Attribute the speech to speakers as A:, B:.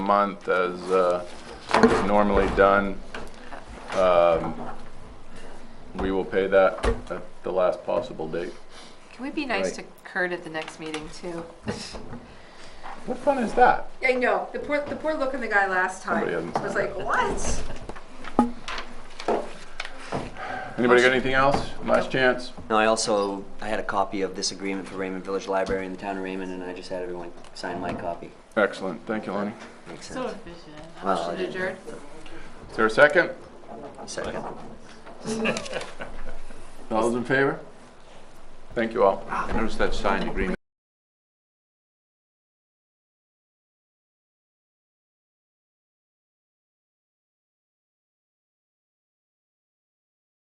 A: month as uh, is normally done. Um, We will pay that at the last possible date.
B: Can we be nice to
A: Right.
B: Kurt at the next meeting too?
A: What fun is that?
B: I know, the poor, the poor look on the guy last time
A: Somebody hasn't
B: was
A: signed
B: like, what?
A: Anybody got anything else? Last chance?
C: No, I also, I had a copy of this agreement for Raymond Village Library in the town of Raymond, and I just had everyone sign my copy.
A: Excellent, thank you, Lenny.
C: Makes
B: So
C: sense.
B: efficient.
C: Well, I
B: Motion to
C: didn't-
B: adjourn?
A: Is there a second?
C: Second.
A: All those in favor? Thank you all.
D: Notice that signed agreement